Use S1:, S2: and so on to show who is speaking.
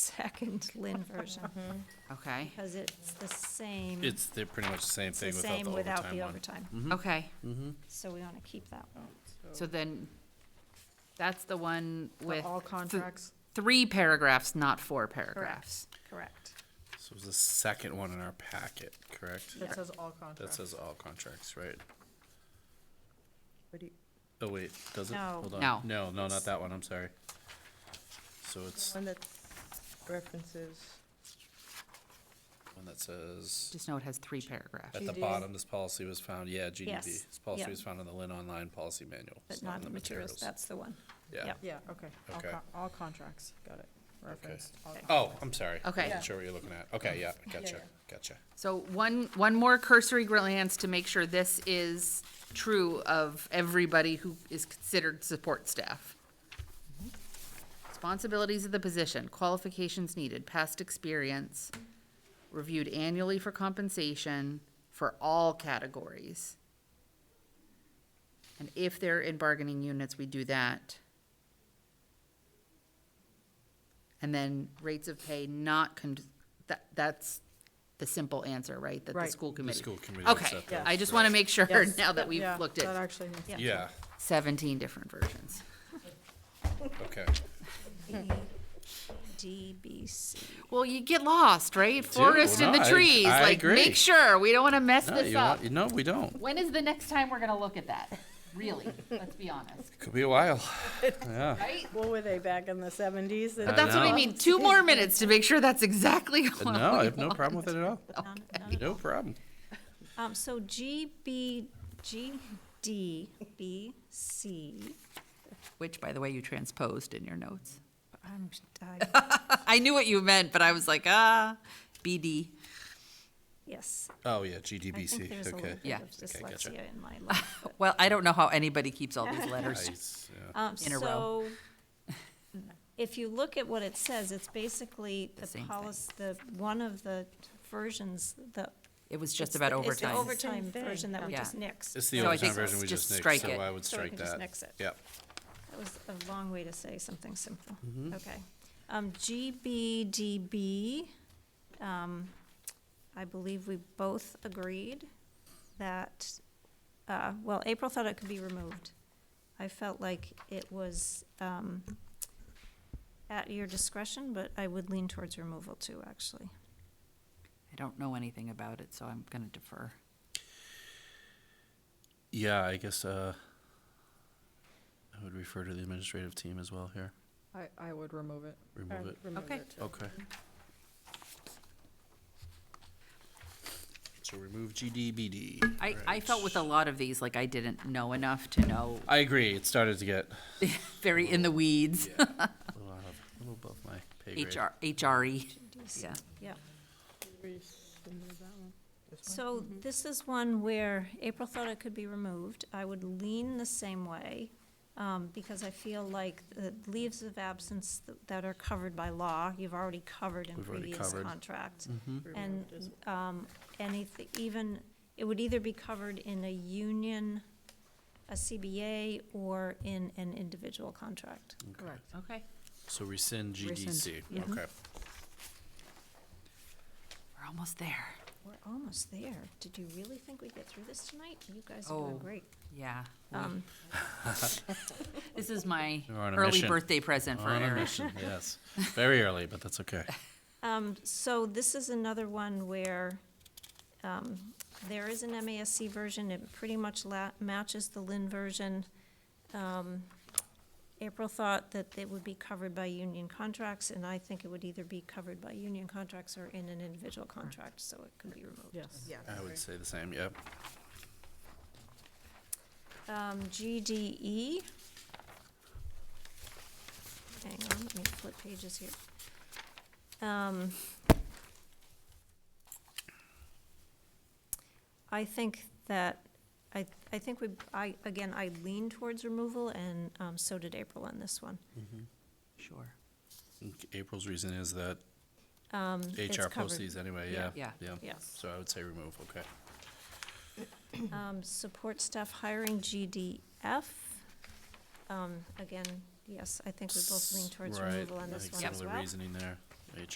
S1: second Lynn version,
S2: Okay,
S1: because it's the same, it's
S3: It's, they're pretty much the same
S1: Mm-hmm. the
S3: thing without the
S1: same without
S3: overtime
S1: the
S3: one. Mm-hmm.
S1: overtime.
S2: okay,
S1: So we want to keep that one.
S2: so then, that's the one with.
S1: all
S2: th-
S1: contracts?
S2: Three paragraphs, not four paragraphs.
S1: Correct.
S3: So it's the second one in our packet, correct?
S4: That says all contracts.
S3: That says all contracts, right?
S4: What do you-
S3: Oh, wait, does it?
S1: No.
S3: Hold on.
S2: No.
S3: No, no, not that one, I'm sorry. So it's
S4: One that references,
S3: one that says,
S2: Just know it has three paragraphs.
S3: at the
S4: GD.
S3: bottom, this policy was found, yeah, GDB.
S1: Yes,
S3: This policy
S1: yeah.
S3: was found in the Lynn Online Policy Manual.
S1: But
S3: It's
S1: not
S3: in
S1: the materials, that's the one.
S3: Yeah.
S1: yep.
S4: yeah, okay, all
S3: Okay.
S4: con- all contracts, got it, referenced. all
S1: Okay.
S3: Oh, I'm sorry.
S2: Okay.
S3: I'm
S2: Yeah.
S3: not sure what you're looking at. Okay, yeah, gotcha,
S4: yeah.
S3: gotcha.
S2: So one, one more cursory glance to make sure this is true of everybody who is considered support staff. Responsibilities of the position, qualifications needed, past experience, reviewed annually for compensation for all categories. And if they're in bargaining units, we do that. And then rates of pay not con, that, that's the simple answer, right? That the
S4: Right.
S2: school
S3: The
S2: committee.
S3: school committee. looks
S2: Okay,
S3: at those,
S2: I just wanna make sure
S4: Yes.
S2: now that we've
S4: Yeah,
S2: looked
S4: That
S2: at
S4: actually makes.
S1: Yeah.
S3: Yeah,
S2: seventeen different versions.
S3: okay.
S1: DBC.
S2: Well, you get lost, right? Forest in the
S3: no, I-
S2: trees,
S3: I
S2: like,
S3: agree.
S2: make sure, we don't wanna mess
S3: No,
S2: this
S3: you
S2: up.
S3: want, no, we don't.
S2: When is the next time we're gonna look at that? Really, let's be honest,
S3: Could be a while, yeah.
S2: right?
S4: What were they back in the seventies?
S3: But
S2: That's what I
S3: know.
S2: mean, two more minutes to make sure that's exactly
S3: No,
S2: what
S3: I
S2: we
S3: have no problem with it at all.
S1: None- none at
S3: No problem.
S1: all. Um, so GB, GDBC,
S2: Which, by the way, you transposed in your notes.
S1: I'm, I
S2: I knew what you meant, but I was like, ah, BD.
S1: Yes,
S3: Oh, yeah,
S1: I think
S3: GDBC,
S1: there's a little
S3: okay.
S1: bit
S2: Yeah.
S1: of
S3: Okay, gotcha.
S1: dyslexia in my life. but-
S2: Well, I don't know how anybody keeps all these letters.
S3: Nice, yeah.
S1: Um,
S2: In a row.
S1: so, if you look at what it says, it's basically
S2: The
S1: the
S2: same thing.
S1: policy, the, one of the versions, the.
S2: It was just
S1: it's
S2: about
S1: the- it's the
S2: overtime.
S4: Same
S1: overtime
S4: thing.
S1: version that we
S2: Yeah.
S1: just nixed.
S3: It's the
S2: So I
S3: overtime
S2: think
S3: version we
S2: just
S3: just nixed,
S2: strike
S3: so
S2: it.
S3: I would
S1: So we
S3: strike
S1: can just
S3: that.
S1: nix it.
S3: Yep,
S1: That was a long way to say something simple. Okay. Um, GBDB, um, I believe we both agreed that, uh, well, April thought it could be removed. I felt like it was, um, at your discretion, but I would lean towards removal too, actually.
S2: I don't know anything about it, so I'm gonna defer.
S3: yeah, I guess, uh, I would refer to the administrative team as well here.
S4: I, I would remove it.
S3: Remove it.
S2: Okay. it,
S3: Okay. So remove GDBD.
S2: I, I
S3: Right.
S2: felt with a lot of these, like I didn't know enough to know,
S3: I agree, it started to get
S2: very in the weeds,
S3: yeah, a little out of- a little above my pay grade.
S2: HR,
S3: E.
S2: HRE,
S1: GDC.
S2: E. yeah.
S1: Yeah.
S4: Remove that one.
S1: So
S4: mm-hmm.
S1: this is one where April thought it could be removed. I would lean the same way, um, because I feel like the leaves of absence th- that are covered by law, you've already covered in
S3: We've already
S1: previous
S3: covered. Mm-hmm.
S1: contract.
S3: Hmm?
S1: And,
S4: Removed as well.
S1: um, anything, even, it would either be covered in a union, a CBA, or in an individual contract.
S2: Correct. Okay.
S3: So rescind GDC,
S2: Rescind,
S3: okay.
S2: We're almost there.
S1: We're almost there. Did you really think we'd get through this tonight? You guys are
S2: Oh.
S1: doing great.
S2: Yeah.
S1: Um,
S2: This is my
S3: We're on a
S2: early
S3: mission.
S2: birthday present for
S3: On a
S2: Eric.
S3: mission, yes. Very early, but that's okay.
S1: Um, so this is another one where, um, there is an MASC version, it pretty much la- matches the Lynn version. Um, April thought that it would be covered by union contracts, and I think it would either be covered by union contracts or in an individual contract, so it could be removed.
S4: Yes. Yeah.
S3: I would say the same, yep.
S1: Um, GDE. Hang on, let me flip pages here. Um, I think that, I, I think we, I, again, I lean towards removal and, um, so did April on this one.
S3: Mm-hmm.
S2: Sure.
S3: April's reason is that
S1: Um, it's
S3: HR posts
S1: covered.
S3: these anyway, yeah.
S1: Yeah.
S2: Yeah.
S3: Yeah,
S1: Yes.
S3: so I would say remove, okay.
S1: Um, support staff hiring GDF. Um, again, yes, I think we both lean towards
S3: Right,
S1: removal on
S3: I
S1: this
S3: think
S1: one
S3: some
S1: as
S3: of the
S1: well.
S3: Reasoning there,